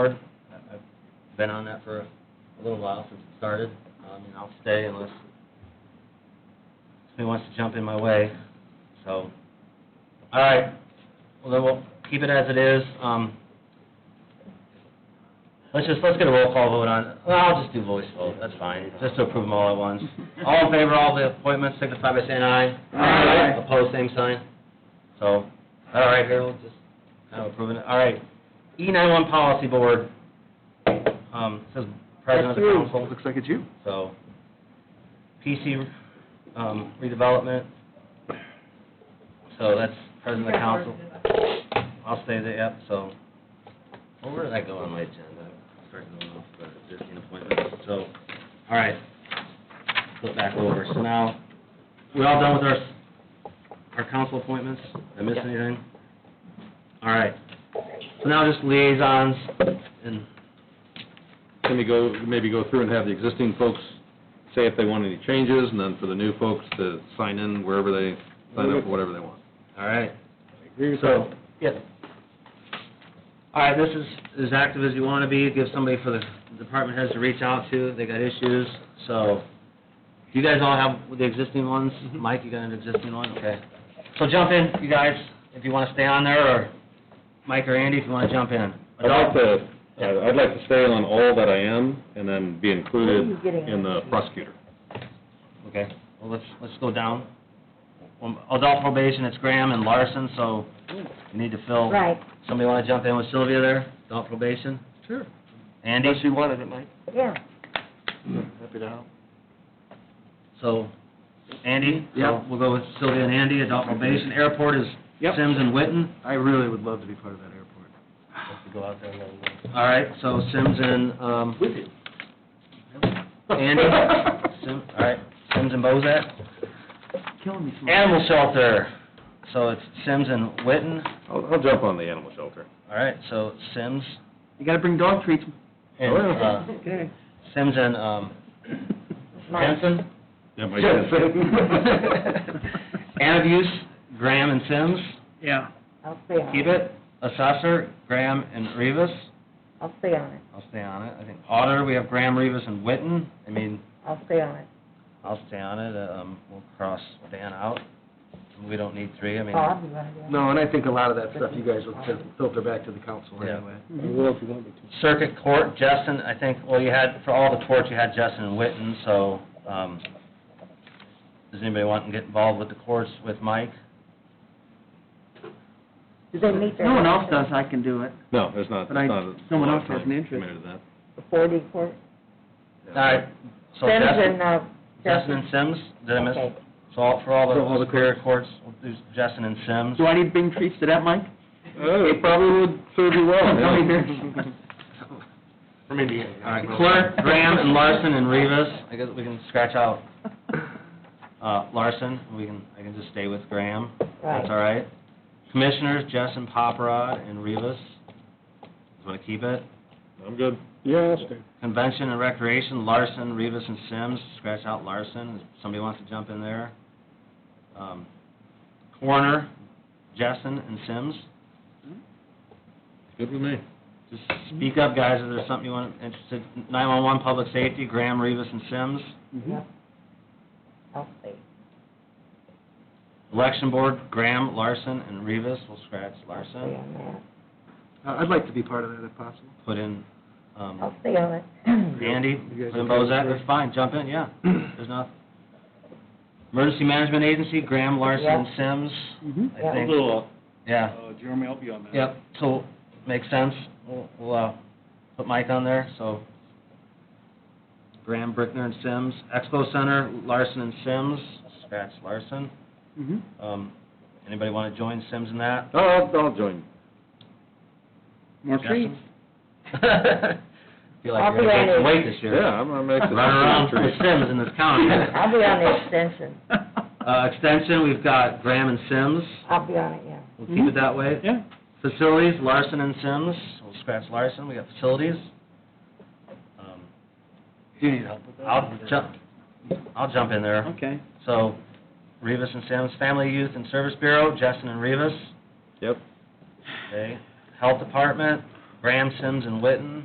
board. I- I've been on that for a little while since it started, um, and I'll stay unless somebody wants to jump in my way, so. All right, well, then we'll keep it as it is, um, let's just, let's get a roll call vote on, well, I'll just do voice vote, that's fine, just to approve them all at once. All in favor of all the appointments, signify by saying aye. Aye. Opposed, same sign. So, all right, Harold, just kind of approving it, all right. E nine-one Policy Board, um, says President of the Council. Looks like it's you. So, PC um, redevelopment, so that's president of the council. I'll stay there, yep, so. Well, where did I go on my agenda? I started going off the existing appointments, so, all right. Flip back over, so now, we all done with our, our council appointments? Did I miss anything? All right, so now just liaisons and Can we go, maybe go through and have the existing folks say if they want any changes, and then for the new folks to sign in wherever they, sign up for whatever they want? All right. So, yeah. All right, this is as active as you want to be, give somebody for the department heads to reach out to, they got issues, so. Do you guys all have the existing ones? Mm-hmm. Mike, you got an existing one, okay. So jump in, you guys, if you want to stay on there, or Mike or Andy, if you want to jump in. I'd like to, I'd I'd like to stay on all that I am, and then be included in the prosecutor. Okay, well, let's, let's go down. Um, Adult probation, it's Graham and Larson, so Mm. you need to fill. Right. Somebody want to jump in with Sylvia there, adult probation? Sure. Andy? Unless you wanted it, Mike. Yeah, Happy to help. So, Andy? Yep. So We'll go with Sylvia and Andy, adult probation. Airport is Yep. Sims and Witten. I really would love to be part of that airport. All right, so Sims and, um... With you. Andy? Sim, all right, Sims and Bozak. Killing me. Slim. Animal shelter, so it's Sims and Witten. I'll, I'll jump on the animal shelter. All right, so Sims You gotta bring dog treats. and, uh, Okay. Sims and, um, Henson. Yeah, Mike. And abuse, Graham and Sims, Yeah. I'll stay on it. keep it. Assessor, Graham and Rivas. I'll stay on it, I'll stay on it. I think auditor, we have Graham, Rivas, and Witten. I mean, I'll stay on it. I'll stay on it. Uh, Um, we'll cross Dan out. We don't need three. I mean, Bob, you wanna do it? No, and I think a lot of that stuff you guys will fil- filter back to the council Yeah. anyway. circuit court, Justin, I think, well, you had, for all the torts, you had Justin and Witten, so, um, does anybody want to get involved with the courts with Mike? Do they meet their... No one else does, I can do it. No, there's not, But I- there's not. a someone lot of else has time an interest. Committed to that. The 40 court, All right, so Sims Justin, and, uh... Justin and Sims, did I miss? Okay. So all, for all For all the the superior courts, we'll do Justin and Sims. Do I need to bring treats to that, Mike? Oh, it probably would serve Oh, you well. From Indiana. All right, Clerk, Graham, and Larson, and Rivas, I guess we can scratch out, uh, Larson, we can, I can just stay with Graham, that's all right. Commissioners, Justin Poprod and Rivas, just wanna keep it. I'm good. Convention and Recreation, Larson, Rivas, and Sims, scratch out Larson, if somebody wants to jump in there. Um, Coroner, Justin and Sims, Mm-hmm. Good with me. just speak up, guys, if there's something you want, interested. Nine-one-one, Public Safety, Graham, Rivas, and Sims. Mm-hmm. Yep. I'll stay. Election Board, Graham, Larson, and Rivas, we'll scratch I'll stay Larson, on I'd like to be part of that if possible. put in, that. I'll um, stay on it. Andy, You guys put in okay with Bozak, that? that's fine, jump in, yeah, there's not. Emergency Management Agency, Graham, Larson, and Sims, Mm-hmm. Mhm. I Yeah. think. Yeah, Jeremy, I'll be on that. yep, so, makes sense, we'll, we'll, uh, put Mike on there, so. Graham, Brickner, and Sims, Expo Center, Larson and Sims, scratch Larson, Mm-hmm. Mhm. um, anybody wanna join Sims in that? Oh, I'll, I'll join. More treats. Feel like I'll you're gonna be gain some ready. weight this year. Yeah, I'm, I'm Run actually. around for the Sims in this county. I'll be on the extension, Uh, extension, we've got Graham and Sims, I'll be on it, yeah. we'll keep it that way. Mm-hmm. Yeah. Facilities, Larson and Sims, we'll scratch Larson, we got facilities. Um, Do you need help with that? I'll jump, I'll jump in there. Okay. So, Rivas and Sims, Family Youth and Service Bureau, Justin and Rivas, Yep. okay. Health Department, Graham, Sims, and Witten.